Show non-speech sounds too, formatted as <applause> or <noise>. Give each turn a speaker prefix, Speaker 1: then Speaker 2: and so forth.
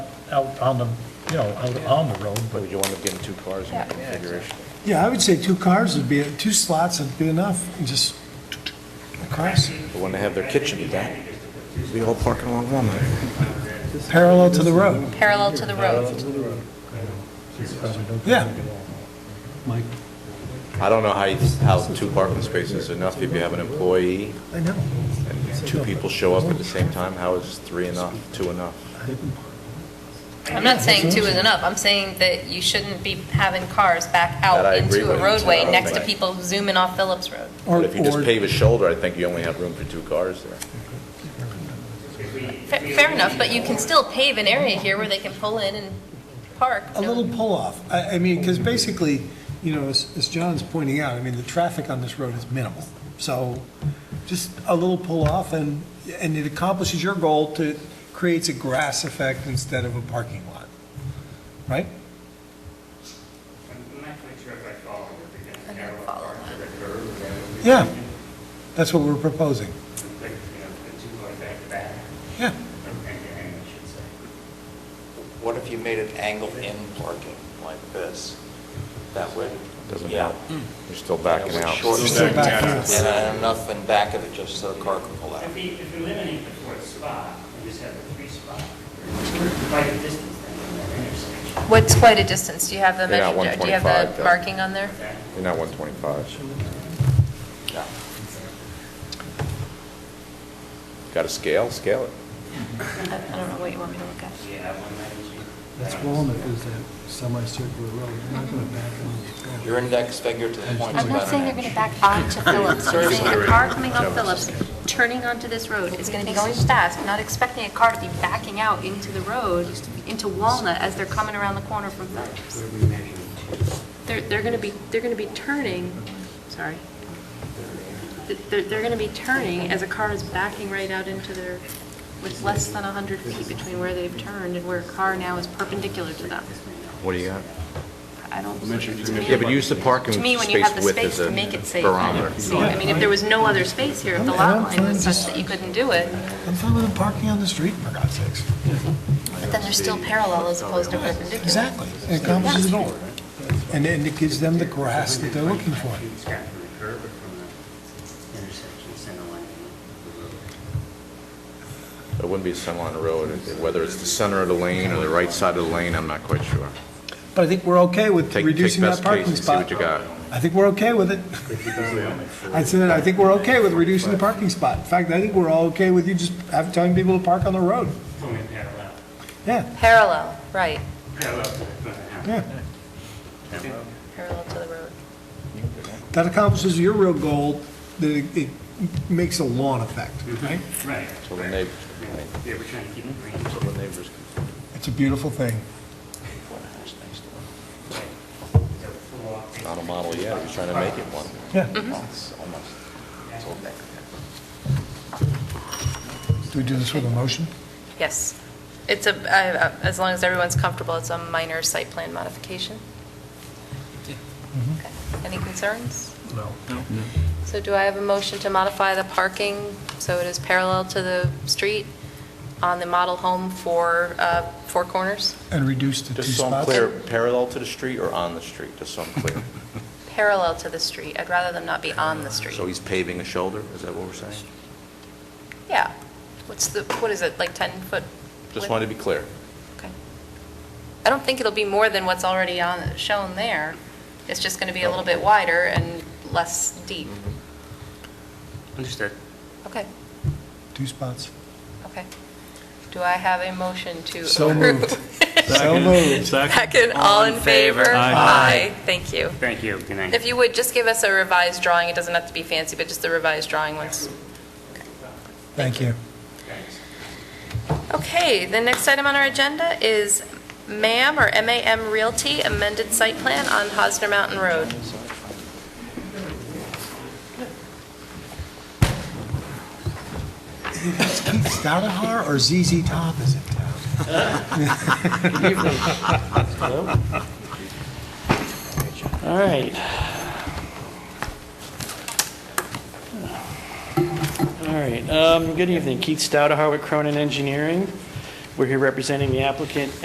Speaker 1: out on the, you know, out on the road, but
Speaker 2: Would you want to get two cars in that
Speaker 3: Yeah. Yeah,
Speaker 2: configuration?
Speaker 4: Yeah, I would say two cars would be, two slots would be enough, and just across,
Speaker 2: But when they have their kitchen event, we all parking along Walnut.
Speaker 4: parallel to the road.
Speaker 3: parallel to the road.
Speaker 4: Yeah,
Speaker 5: Mike,
Speaker 2: I don't know how, you- how two parking spaces is enough if you have an employee
Speaker 4: I know.
Speaker 2: and two people show up at the same time. How is three enough, two enough?
Speaker 3: I'm not saying two is enough, I'm saying that you shouldn't be having cars back
Speaker 2: That I
Speaker 3: out
Speaker 2: agree
Speaker 3: into
Speaker 2: with
Speaker 3: a
Speaker 2: you.
Speaker 3: roadway next to
Speaker 2: Right.
Speaker 3: people zooming off Phillips Road.
Speaker 4: Or
Speaker 2: But if you just
Speaker 4: or-
Speaker 2: pave a shoulder, I think you only have room for two cars there.
Speaker 3: Fa- Fair enough, but you can still pave an area here where they can pull in and park.
Speaker 4: A little pull-off. I, I mean, because basically, you know, as, as John's pointing out, I mean, the traffic on this road is minimal. So just a little pull-off and, and it accomplishes your goal to, creates a grass effect instead of a parking lot, right?
Speaker 6: I'm not quite sure if I follow what they're
Speaker 3: I
Speaker 6: getting
Speaker 3: don't
Speaker 6: parallel
Speaker 3: follow
Speaker 6: parking to the curb, and then we
Speaker 4: Yeah, that's what we're proposing.
Speaker 6: could, like, you know, the two going back to back,
Speaker 4: Yeah,
Speaker 6: or end to end, I should say.
Speaker 7: What if you made it angled-in parking like this? That would.
Speaker 2: Doesn't
Speaker 7: yeah,
Speaker 2: help. You're still
Speaker 7: that
Speaker 2: backing
Speaker 7: would
Speaker 2: out.
Speaker 7: shorten
Speaker 4: Still
Speaker 7: it.
Speaker 4: back out.
Speaker 7: And then enough in back of it just so the car can pull out.
Speaker 6: If we, if we eliminate the fourth spot, and just have the three spot, we're quite a distance then from that intersection.
Speaker 3: What's quite a distance, do you have the
Speaker 2: They're
Speaker 3: measure,
Speaker 2: not
Speaker 3: do you have
Speaker 2: 125,
Speaker 3: the
Speaker 2: though.
Speaker 3: marking on there?
Speaker 6: Okay.
Speaker 2: You're not 125.
Speaker 7: Yeah.
Speaker 2: Got to scale, scale it.
Speaker 3: I I don't know what you want me to look at.
Speaker 6: Yeah, one ninety.
Speaker 5: that's Walnut, is that semicircular road, you're not going to back on.
Speaker 7: Your index figure to the point.
Speaker 3: I'm not saying they're going to back onto Phillips. I'm saying a car coming off Phillips, turning onto this road, is going to be going fast, not expecting a car to be backing out into the road, into Walnut as they're coming around the corner from Phillips. They're, they're going to be, they're going to be turning, sorry. They're, they're going to be turning as a car is backing right out into their, with less than 100 feet between where they've turned and where a car now is perpendicular to them.
Speaker 2: What do you got?
Speaker 3: I don't.
Speaker 2: Yeah, but use the parking
Speaker 3: To me, when you
Speaker 2: space
Speaker 3: have the
Speaker 2: width as
Speaker 3: space to make it
Speaker 2: a
Speaker 3: safe, I
Speaker 2: barometer.
Speaker 3: don't see, I mean, if there was no other space here, if the lot line was such that you couldn't do it,
Speaker 4: I'm fine with them parking on the street, for God's sakes.
Speaker 3: but then they're still parallel as opposed to perpendicular.
Speaker 4: Exactly. It accomplishes it all. And then it gives them the grass that they're looking for.
Speaker 6: It's got from the curb or from the intersection, center line of the
Speaker 2: It
Speaker 6: road.
Speaker 2: wouldn't be a center line of road, whether it's the center of the lane or the right side of the lane, I'm not quite sure.
Speaker 4: But I think we're okay with
Speaker 2: Take, take
Speaker 4: reducing that
Speaker 2: best case
Speaker 4: parking
Speaker 2: and see
Speaker 4: spot.
Speaker 2: what you got.
Speaker 4: I think we're okay with it. I said, I think we're okay with reducing the parking spot. In fact, I think we're all okay with you just having, telling people to park on the road.
Speaker 6: It's only parallel,
Speaker 4: Yeah,
Speaker 3: Parallel, right,
Speaker 6: parallel to the front of the house.
Speaker 4: yeah.
Speaker 3: parallel to the road.
Speaker 4: That accomplishes your real goal, that it- it makes a lawn effect, right?
Speaker 6: Right,
Speaker 2: So the neighbors,
Speaker 6: yeah, we're trying to keep it green.
Speaker 2: so the neighbors can
Speaker 4: It's a beautiful thing.
Speaker 2: Not a model yet, he's trying to make it one.
Speaker 4: Yeah.
Speaker 2: Well, It's almost, it's all back.
Speaker 4: Do we do this with a motion?
Speaker 3: Yes. It's a, I- I- as long as everyone's comfortable, it's a minor site plan modification. Okay. Any concerns?
Speaker 1: no.
Speaker 3: So do I have a motion to modify the parking so it is parallel to the street on the model home for uh, Four Corners?
Speaker 4: And reduce to two
Speaker 2: Just so I'm
Speaker 4: spots?
Speaker 2: clear, parallel to the street or on the street, just so I'm clear?
Speaker 3: Parallel to the street. I'd rather them not be on the street.
Speaker 2: Uh, So he's paving a shoulder, is that what we're saying?
Speaker 3: Yeah. What's the, what is it, like 10-foot?
Speaker 2: Just wanted to be clear.
Speaker 3: Okay. I don't think it'll be more than what's already on, shown there. It's just going to be a little bit wider and less deep. Mm-hmm.
Speaker 6: Understood.
Speaker 3: Okay,
Speaker 4: Two spots.
Speaker 3: okay. Do I have a motion to approve? <laughs>
Speaker 4: So moved. So moved.
Speaker 3: Second, all in favor? Aye. Thank you.
Speaker 6: Thank you, good night.
Speaker 3: If you would, just give us a revised drawing. It doesn't have to be fancy, but just the revised drawing once.
Speaker 4: Thank you.
Speaker 3: Okay, the next item on our agenda is MAM, or MAM Realty, amended site plan on Hosner Mountain Road.
Speaker 4: Is Keith Stoudenhour or ZZ Top is in town?
Speaker 8: All right. All right, um, good evening. Keith Stouda, Harwick Cronin Engineering. We're here representing the applicant